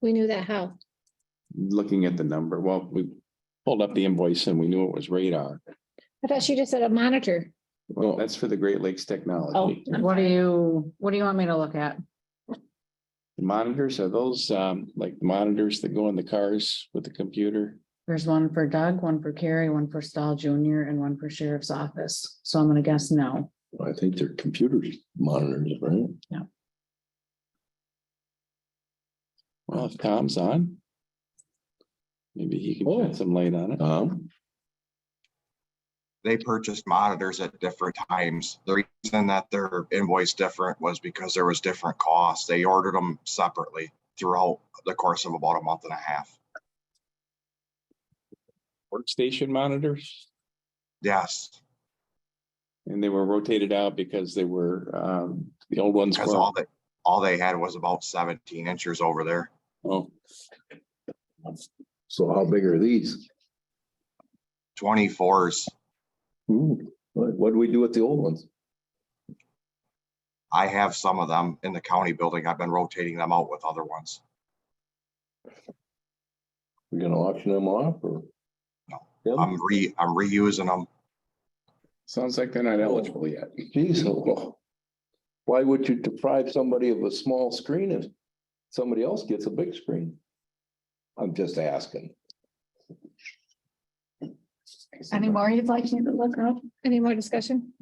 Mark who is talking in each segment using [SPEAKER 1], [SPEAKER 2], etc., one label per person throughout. [SPEAKER 1] We knew that how?
[SPEAKER 2] looking at the number, well, we pulled up the invoice and we knew it was radar.
[SPEAKER 1] I thought she just said a monitor.
[SPEAKER 2] Well, that's for the Great Lakes Technology.
[SPEAKER 1] Oh, I'm
[SPEAKER 3] What do
[SPEAKER 1] sorry.
[SPEAKER 3] you, what do you want me to look at?
[SPEAKER 2] Monitors, are those um like monitors that go in the cars with the computer?
[SPEAKER 3] There's one for Doug, one for Carrie, one for Stahl Junior, and one for Sheriff's Office. So I'm gonna guess no.
[SPEAKER 4] I think they're computers monitors, right?
[SPEAKER 2] Well, if Tom's on. Maybe he can
[SPEAKER 4] Oh.
[SPEAKER 2] put some light on it.
[SPEAKER 4] Um,
[SPEAKER 5] they purchased monitors at different times. The reason that their invoice different was because there was different costs. They ordered them separately throughout the course of about a month and a half.
[SPEAKER 2] Workstation monitors,
[SPEAKER 5] Yes,
[SPEAKER 2] and they were rotated out because they were um the old ones.
[SPEAKER 5] because
[SPEAKER 2] were-
[SPEAKER 5] all that, all they had was about seventeen inches over there.
[SPEAKER 2] Oh,
[SPEAKER 4] so how big are these?
[SPEAKER 5] Twenty-fours,
[SPEAKER 4] Hmm, what, what do we do with the old ones?
[SPEAKER 5] I have some of them in the county building. I've been rotating them out with other ones.
[SPEAKER 4] We gonna auction them off or?
[SPEAKER 5] No.
[SPEAKER 4] Yeah,
[SPEAKER 5] I'm re, I'm reusing them.
[SPEAKER 2] sounds like they're
[SPEAKER 4] Oh.
[SPEAKER 2] not eligible yet.
[SPEAKER 4] geez, oh, well, why would you deprive somebody of a small screen if somebody else gets a big screen? I'm just asking.
[SPEAKER 3] Any more you'd like me to look up?
[SPEAKER 1] Any more discussion?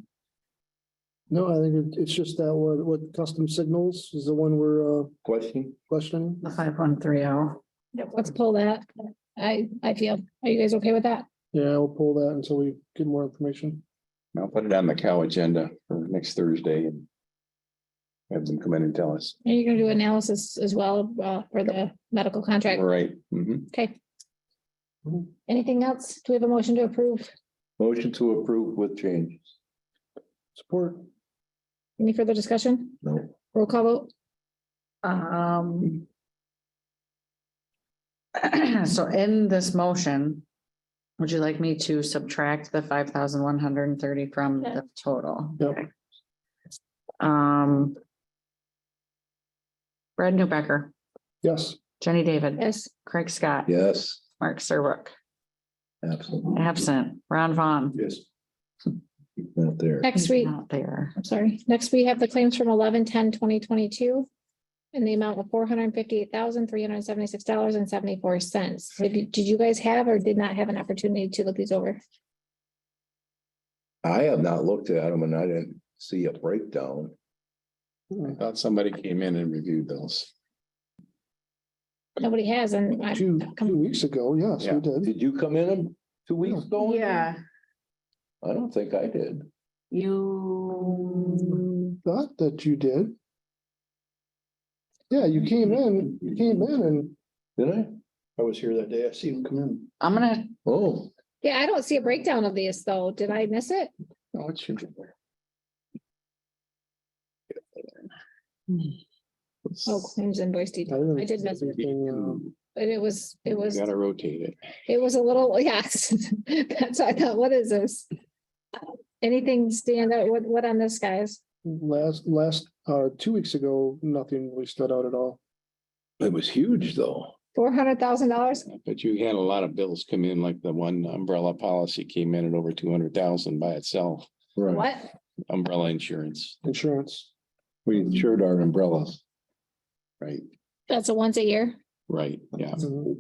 [SPEAKER 6] No, I think it- it's just that what, what custom signals is the one we're uh,
[SPEAKER 4] Question?
[SPEAKER 6] questioning.
[SPEAKER 3] The five one three oh.
[SPEAKER 1] Let's pull that. I, I feel, are you guys okay with that?
[SPEAKER 6] Yeah, we'll pull that until we get more information.
[SPEAKER 2] I'll put it on the cow agenda for next Thursday and. Have them come in and tell us.
[SPEAKER 1] Are you gonna do analysis as well, uh, for the medical contract?
[SPEAKER 2] Right. mhm.
[SPEAKER 1] Okay.
[SPEAKER 6] Mhm.
[SPEAKER 1] Anything else? Do we have a motion to approve?
[SPEAKER 4] Motion to approve with changes.
[SPEAKER 6] Support.
[SPEAKER 1] Any further discussion?
[SPEAKER 4] No.
[SPEAKER 1] Roll call vote?
[SPEAKER 3] Um. So in this motion, would you like me to subtract the five thousand one hundred and thirty from
[SPEAKER 1] Yeah.
[SPEAKER 3] the total?
[SPEAKER 6] Yep.
[SPEAKER 3] Okay. Um. Brad Newbecker,
[SPEAKER 6] Yes.
[SPEAKER 3] Jenny David,
[SPEAKER 1] Yes.
[SPEAKER 3] Craig Scott,
[SPEAKER 4] Yes,
[SPEAKER 3] Mark Serbrook,
[SPEAKER 4] absolutely.
[SPEAKER 3] absent, Ron Vaughn.
[SPEAKER 4] Yes. Not there.
[SPEAKER 1] Next
[SPEAKER 3] He's
[SPEAKER 1] week,
[SPEAKER 3] Not there.
[SPEAKER 1] I'm sorry. Next, we have the claims from 11-10-2022 in the amount of four hundred and fifty-eight thousand, three hundred and seventy-six dollars and seventy-four cents. Did you guys have or did not have an opportunity to look these over?
[SPEAKER 4] I have not looked at them and I didn't see a breakdown.
[SPEAKER 2] I thought somebody came in and reviewed those.
[SPEAKER 1] Nobody has and I,
[SPEAKER 6] Two, two weeks ago, yes,
[SPEAKER 2] Yeah.
[SPEAKER 6] we did.
[SPEAKER 4] Did you come in two weeks ago? I don't think I did.
[SPEAKER 3] you.
[SPEAKER 6] Thought that you did. Yeah, you came in, you came in and.
[SPEAKER 4] Did I?
[SPEAKER 6] I was here that day. I see him come in.
[SPEAKER 3] I'm gonna,
[SPEAKER 4] Oh,
[SPEAKER 1] yeah, I don't see a breakdown of these though. Did I miss it?
[SPEAKER 2] Oh, it should be there.
[SPEAKER 1] Oh, claims invoice detail. I did miss it,
[SPEAKER 6] um,
[SPEAKER 1] but it was, it was,
[SPEAKER 2] Gotta rotate it.
[SPEAKER 1] it was a little, yes. That's, what I thought, what is this? Anything stand out? What, what on this guys?
[SPEAKER 6] Last, last, uh, two weeks ago, nothing really stood out at all.
[SPEAKER 4] it was huge though.
[SPEAKER 1] Four hundred thousand dollars?
[SPEAKER 2] But you had a lot of bills come in, like the one umbrella policy came in at over two hundred thousand by itself,
[SPEAKER 4] Right.
[SPEAKER 1] What?
[SPEAKER 2] umbrella insurance.
[SPEAKER 6] Insurance.
[SPEAKER 4] We insured our umbrellas.
[SPEAKER 2] Right,
[SPEAKER 1] That's a once a year?
[SPEAKER 2] right, yeah.
[SPEAKER 6] Mhm.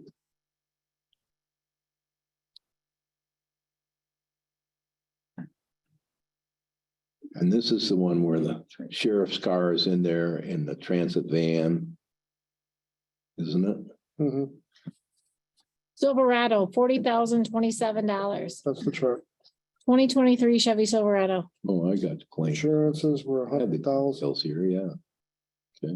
[SPEAKER 4] And this is the one where the sheriff's car is in there and the transit van. Isn't it?
[SPEAKER 6] Mhm.
[SPEAKER 1] Silverado, forty thousand twenty-seven dollars.
[SPEAKER 6] That's the chart.
[SPEAKER 1] Twenty twenty-three Chevy Silverado.
[SPEAKER 4] Oh, I got the claim.
[SPEAKER 6] Insurances were a
[SPEAKER 4] I had the
[SPEAKER 6] hundred thousand.
[SPEAKER 4] Bills here, yeah.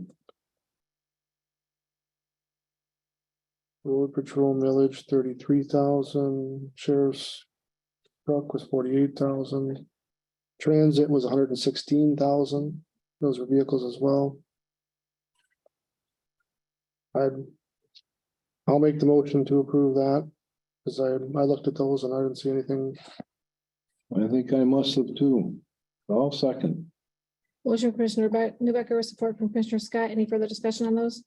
[SPEAKER 6] Road patrol millage thirty-three thousand, sheriff's truck was forty-eight thousand. Transit was hundred and sixteen thousand, those were vehicles as well. I'd, I'll make the motion to approve that, cause I, I looked at those and I didn't see anything.
[SPEAKER 4] I think I must have too. I'll second.
[SPEAKER 1] Motion from Commissioner Newbecker with support from Commissioner Scott. Any further discussion on those?